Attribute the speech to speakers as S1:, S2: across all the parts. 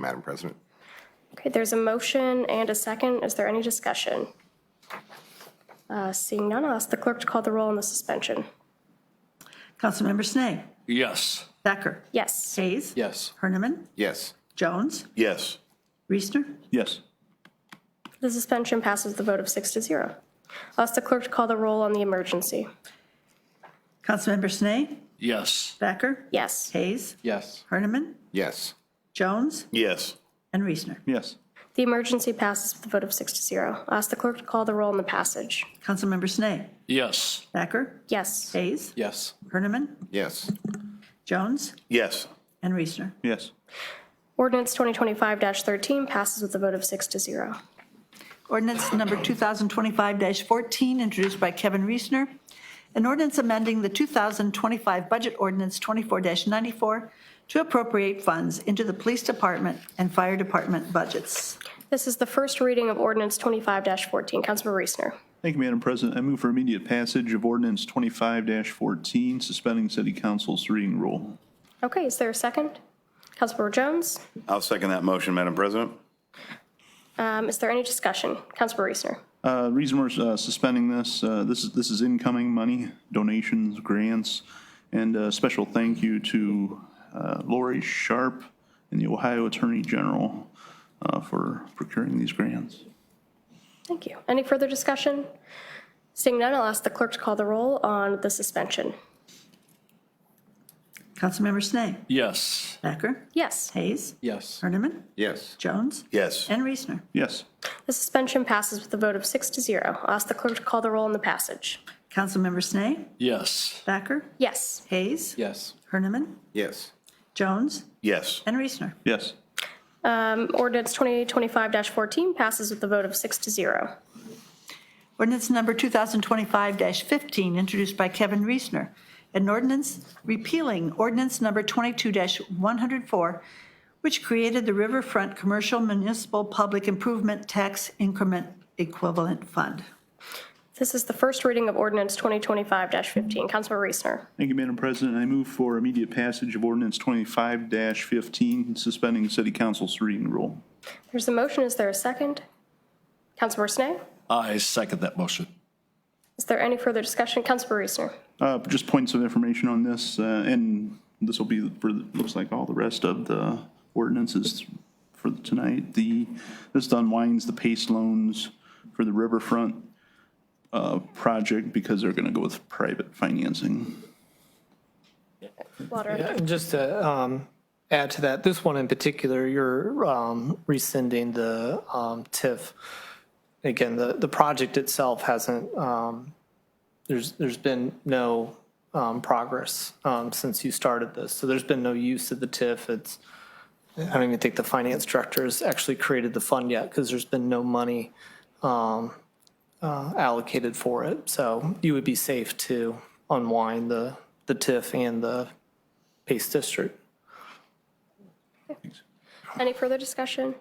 S1: Madam President.
S2: Okay, there's a motion and a second. Is there any discussion? Uh, Seeing none, I'll ask the clerk to call the roll on the suspension.
S3: Councilmember Snee.
S4: Yes.
S3: Thacker.
S2: Yes.
S3: Hayes.
S4: Yes.
S3: Herniman.
S1: Yes.
S3: Jones.
S5: Yes.
S3: Reesner.
S4: Yes.
S2: The suspension passes the vote of six to zero. I'll ask the clerk to call the roll on the emergency.
S3: Councilmember Snee.
S4: Yes.
S3: Thacker.
S2: Yes.
S3: Hayes.
S4: Yes.
S3: Herniman.
S1: Yes.
S3: Jones.
S5: Yes.
S3: And Reesner.
S4: Yes.
S2: The emergency passes with a vote of six to zero. I'll ask the clerk to call the roll on the passage.
S3: Councilmember Snee.
S4: Yes.
S3: Thacker.
S2: Yes.
S3: Hayes.
S4: Yes.
S3: Herniman.
S1: Yes.
S3: Jones.
S5: Yes.
S3: And Reesner.
S4: Yes.
S2: Ordinance 2025-13 passes with a vote of six to zero.
S3: Ordinance number 2025-14, introduced by Kevin Reesner. An ordinance amending the 2025 Budget Ordinance 24-94 to appropriate funds into the Police Department and Fire Department budgets.
S2: This is the first reading of ordinance 25-14. Councilmember Reesner.
S6: Thank you, Madam President. I move for immediate passage of ordinance 25-14, suspending city council's reading rule.
S2: Okay, is there a second? Councilmember Jones?
S5: I'll second that motion, Madam President.
S2: Um, Is there any discussion? Councilmember Reesner.
S6: Uh, Reason we're uh, suspending this, uh, this is, this is incoming money, donations, grants, and a special thank you to uh, Lori Sharp and the Ohio Attorney General uh, for procuring these grants.
S2: Thank you. Any further discussion? Seeing none, I'll ask the clerk to call the roll on the suspension.
S3: Councilmember Snee.
S4: Yes.
S3: Thacker.
S2: Yes,
S3: Hayes.
S4: Yes.
S3: Herniman.
S1: Yes.
S3: Jones.
S5: Yes.
S3: And Reesner.
S6: Yes,
S2: the suspension passes with a vote of six to zero. I'll ask the clerk to call the roll on the passage.
S3: Councilmember Snee.
S4: Yes.
S3: Thacker.
S2: Yes,
S3: Hayes.
S4: Yes.
S3: Herniman.
S1: Yes.
S3: Jones.
S5: Yes.
S3: And Reesner.
S6: yes.
S2: um, ordinance 2025-14 passes with a vote of six to zero.
S3: Ordinance number 2025-15, introduced by Kevin Reesner. An ordinance repealing ordinance number 22-104, which created the Riverfront Commercial Municipal Public Improvement Tax Increment Equivalent Fund.
S2: This is the first reading of ordinance 2025-15. Councilmember Reesner.
S6: Thank you, Madam President. I move for immediate passage of ordinance 25-15, suspending city council's reading rule.
S2: There's a motion. Is there a second? Councilmember Snee?
S4: I second that motion.
S2: Is there any further discussion? Councilmember Reesner.
S6: Uh, Just points of information on this, uh, and this will be for, looks like all the rest of the ordinances for tonight. The, this unwinds the PACE loans for the riverfront uh, project because they're going to go with private financing.
S2: Water.
S7: And just to um, add to that, this one in particular, you're um, rescinding the um, TIF. Again, the, the project itself hasn't, um, there's, there's been no um, progress um, since you started this. So there's been no use of the TIF. It's, I don't even think the finance director has actually created the fund yet because there's been no money um, uh, allocated for it. So you would be safe to unwind the, the TIF and the Pace District.
S2: Any further discussion?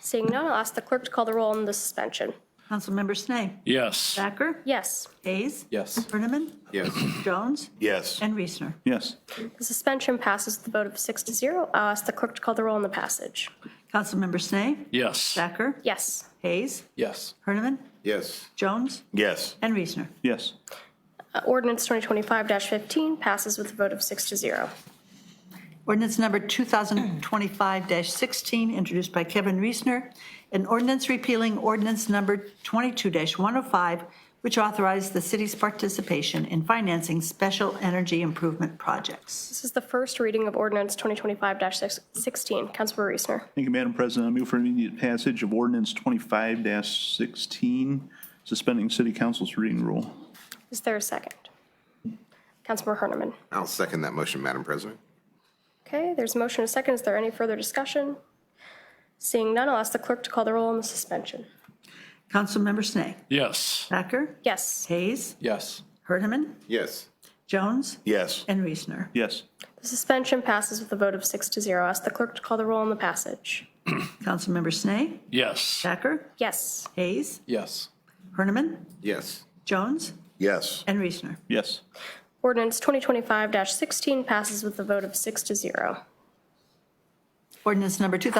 S2: Seeing none, I'll ask the clerk to call the roll on the suspension.
S3: Councilmember Snee.
S4: Yes.
S3: Thacker.
S2: Yes,
S3: Hayes.
S4: Yes.
S3: Herniman.
S1: Yes.
S3: Jones.
S5: Yes.
S3: And Reesner.
S6: Yes,
S2: the suspension passes with a vote of six to zero. I'll ask the clerk to call the roll on the passage.
S3: Councilmember Snee.
S4: Yes.
S3: Thacker.
S2: Yes,
S3: Hayes.
S4: Yes.
S3: Herniman.
S1: Yes.
S3: Jones.
S5: Yes.
S3: And Reesner.
S6: yes.
S2: Uh, ordinance 2025-15 passes with a vote of six to zero.
S3: Ordinance number 2025-16, introduced by Kevin Reesner, an ordinance repealing ordinance number 22-105, which authorized the city's participation in financing special energy improvement projects.
S2: This is the first reading of ordinance 2025-16. Councilmember Reesner.
S6: Thank you, Madam President. I move for immediate passage of ordinance 25-16, suspending city council's reading rule.
S2: Is there a second? Councilmember Herniman.
S1: I'll second that motion, Madam President.
S2: Okay, there's a motion and a second. Is there any further discussion? Seeing none, I'll ask the clerk to call the roll on the suspension.
S3: Councilmember Snee.
S4: Yes.
S3: Thacker.
S2: Yes,
S3: Hayes.
S4: Yes.
S3: Herniman.
S1: Yes.
S3: Jones.
S5: Yes.
S3: And Reesner.
S6: Yes,
S2: the suspension passes with a vote of six to zero. I'll ask the clerk to call the roll on the passage.
S3: Councilmember Snee.
S4: Yes.
S3: Thacker.
S2: Yes,
S3: Hayes.
S4: Yes.
S3: Herniman.
S1: Yes.
S3: Jones.
S5: Yes.
S3: And Reesner.
S6: yes.
S2: Ordinance 2025-16 passes with a vote of six to zero.
S3: Ordinance number 2025